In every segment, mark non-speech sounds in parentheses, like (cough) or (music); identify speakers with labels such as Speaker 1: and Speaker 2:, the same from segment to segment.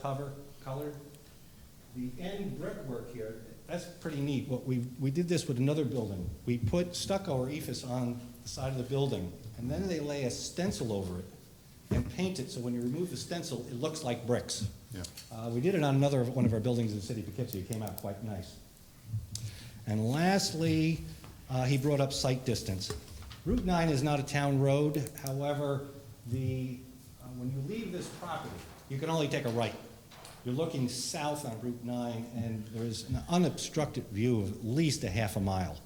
Speaker 1: cover, colored. The end brickwork here, that's pretty neat. What we, we did this with another building. We put stucco or ephes on the side of the building, and then they lay a stencil over it and paint it, so when you remove the stencil, it looks like bricks.
Speaker 2: Yeah.
Speaker 1: Uh, we did it on another, one of our buildings in the city of Poughkeepsie. It came out quite nice. And lastly, uh, he brought up sight distance. Route 9 is not a town road, however, the, uh, when you leave this property, you can only take a right. You're looking south on Route 9, and there's an unobstructed view of at least a half a mile.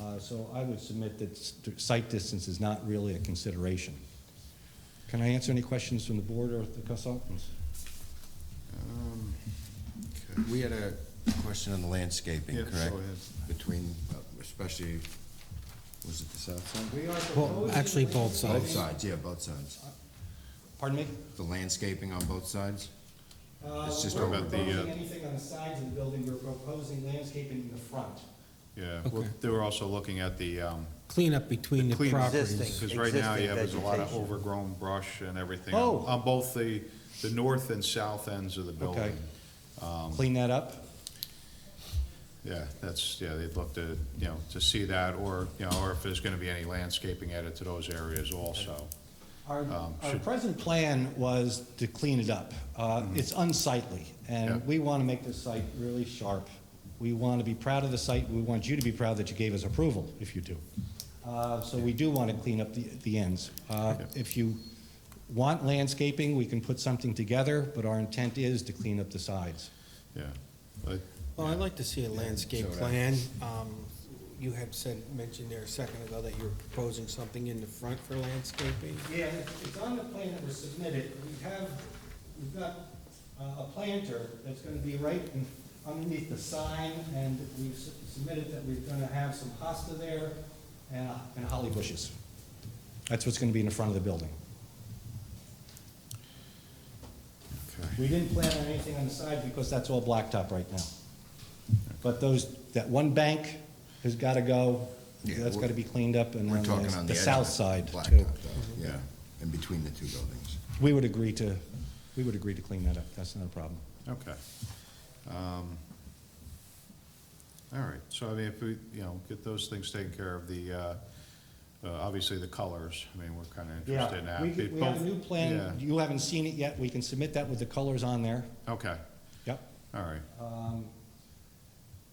Speaker 1: Uh, So I would submit that s- sight distance is not really a consideration. Can I answer any questions from the board or the consultants?
Speaker 2: Um, okay.
Speaker 3: We had a question on the landscaping,
Speaker 2: Yes,
Speaker 3: correct?
Speaker 2: go ahead.
Speaker 3: Between, uh, especially, was it the south side?
Speaker 1: We are
Speaker 4: Well,
Speaker 1: proposing-
Speaker 4: actually, both
Speaker 3: Both
Speaker 4: sides.
Speaker 3: sides, yeah, both sides.
Speaker 1: Pardon me?
Speaker 3: The landscaping on both sides?
Speaker 1: Uh,
Speaker 3: It's just
Speaker 1: we're
Speaker 2: about the, uh,
Speaker 1: proposing anything on the sides of the building, we're proposing landscaping in the front.
Speaker 2: Yeah, well,
Speaker 4: Okay.
Speaker 2: they were also looking at the, um,
Speaker 4: Cleanup between the
Speaker 2: clean,
Speaker 4: properties.
Speaker 5: Existing.
Speaker 2: because right now you have, there's a lot of
Speaker 5: Existing vegetation.
Speaker 2: overgrown brush and everything.
Speaker 1: Oh.
Speaker 2: on- On both the, the north and south ends of the
Speaker 1: Okay.
Speaker 2: building. Um,
Speaker 1: Clean that up?
Speaker 2: Yeah, that's, yeah, they'd love to, you know, to see that, or, you know, or if there's gonna be any landscaping added to those areas also.
Speaker 1: Our,
Speaker 2: Um,
Speaker 1: our
Speaker 2: should- Mm-hmm.
Speaker 1: present plan was to clean it up. Uh, It's unsightly,
Speaker 2: Yeah.
Speaker 1: and we want to make this site really sharp. We want to be proud of the site, we want you to be proud that you gave us approval, if you do. Uh, So we do want to clean up the, the ends. Uh,
Speaker 2: Yeah.
Speaker 1: If you want landscaping, we can put something together, but our intent is to clean up the sides.
Speaker 2: Yeah, but,
Speaker 4: Well, I'd like to see a landscape
Speaker 3: so would I.
Speaker 4: plan. Um, You had said, mentioned there a second ago that you're proposing something in the front for landscaping.
Speaker 1: Yeah, it's on the plan that was submitted. We have, we've got uh, a planter that's gonna be right in- underneath the sign, and we've s- submitted that we're gonna have some hosta there and uh, and holly bushes. That's what's gonna be in the front of the building.
Speaker 2: okay.
Speaker 1: We didn't plan on anything on the side because that's all blacktop right now. But those, that one bank has gotta go,
Speaker 3: Yeah,
Speaker 1: that's
Speaker 3: we're-
Speaker 1: gotta be cleaned up, and
Speaker 3: We're
Speaker 1: then
Speaker 3: talking on
Speaker 1: the-
Speaker 3: the
Speaker 1: the
Speaker 3: edge.
Speaker 1: south side
Speaker 3: blacktop,
Speaker 1: too.
Speaker 3: though, Yeah, in between the two buildings.
Speaker 1: We would agree to, we would agree to clean that up, that's not a problem.
Speaker 2: Okay. Um, All right, so I mean, if we, you know, get those things taken care of, the, uh, uh, obviously the colors, I mean, we're kind of interested in that.
Speaker 1: We
Speaker 2: It
Speaker 1: we have
Speaker 2: both-
Speaker 1: a new plan,
Speaker 2: yeah,
Speaker 1: you haven't seen it yet, we can submit that with the colors on there.
Speaker 2: Okay,
Speaker 1: Yep.
Speaker 2: all right.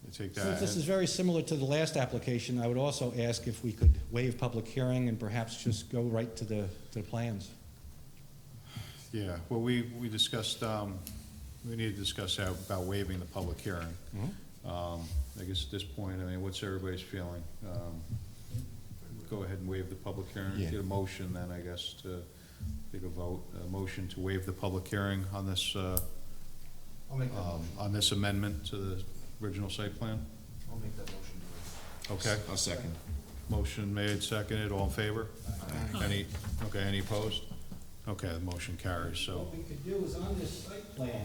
Speaker 2: You Take
Speaker 1: Um, Since
Speaker 2: that,
Speaker 1: this is
Speaker 2: and-
Speaker 1: very similar to the last application, I would also ask if we could waive public hearing and perhaps just go right to the, to the plans.
Speaker 2: yeah, well, we, we discussed, um, we need to discuss that about waiving the public hearing. Um, I guess at this point, I mean, what's everybody's feeling? Um, Go ahead and waive the public hearing,
Speaker 3: Yeah.
Speaker 2: get a motion then, I guess, to take a vote, a motion to waive the public hearing on this, uh,
Speaker 1: I'll make
Speaker 2: um, on this amendment to the original site plan?
Speaker 1: I'll make that motion.
Speaker 2: Okay,
Speaker 3: I'll second.
Speaker 2: motion made, seconded, all in favor? Any, okay, any opposed? Okay, the motion carries, so,
Speaker 1: What we could do is on this site plan,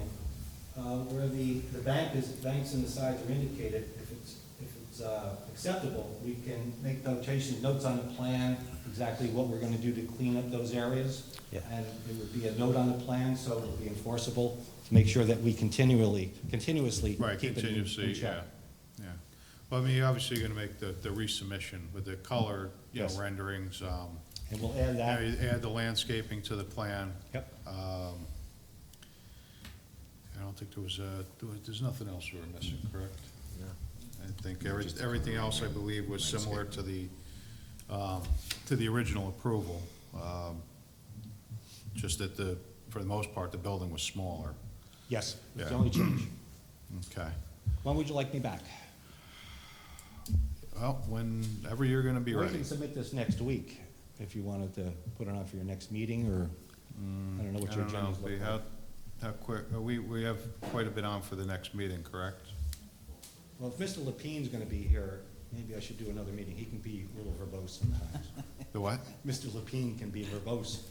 Speaker 1: uh, where the, the bank is, banks and the sides are indicated, if it's, if it's uh, acceptable, we can make notation, notes on the plan, exactly what we're gonna do to clean up those areas.
Speaker 5: Yeah.
Speaker 1: And it would be a note on the plan, so it'll be enforceable, to make sure that we continually, continuously
Speaker 2: right,
Speaker 1: keep it in- in
Speaker 2: continuously, yeah,
Speaker 1: check.
Speaker 2: yeah. Well, I mean, obviously, you're gonna make the, the resubmission with the color, you know,
Speaker 1: Yes. Uh,
Speaker 2: renderings, um,
Speaker 1: And we'll add
Speaker 2: Yeah,
Speaker 1: that,
Speaker 2: you add the landscaping to the plan.
Speaker 1: yep.
Speaker 2: Um, I don't think there was, uh, there was- there's nothing else we were missing, correct? I think every-
Speaker 3: Just the
Speaker 2: everything else, I believe, was similar to the, um, to the original approval. um, Just that the, for the most part, the building was smaller.
Speaker 1: Yes, it's the
Speaker 2: Yeah.
Speaker 1: only change.
Speaker 2: Okay.
Speaker 1: When would you like me back?
Speaker 2: Well, whenever you're gonna be
Speaker 1: We
Speaker 2: ready.
Speaker 1: can submit this next week, if you wanted to put it on for your next meeting, or, I don't know what
Speaker 2: Mm, I
Speaker 1: your
Speaker 2: don't know,
Speaker 1: agenda's
Speaker 2: we
Speaker 1: looking like.
Speaker 2: have, how quick, uh, we, we have quite a bit on for the next meeting, correct?
Speaker 1: Well, if Mr. Lepine's gonna be here, maybe I should do another meeting, he can be a little verbose
Speaker 2: (laughs)
Speaker 1: sometimes.
Speaker 2: The what?
Speaker 1: Mr. Lepine can be verbose.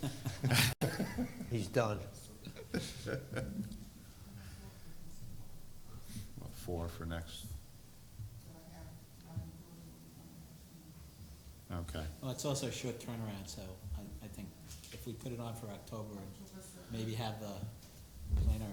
Speaker 5: He's done.
Speaker 2: Well, Four for next. Okay,
Speaker 6: Well, it's also a short turnaround, so I, I think if we put it on for October, maybe have the planner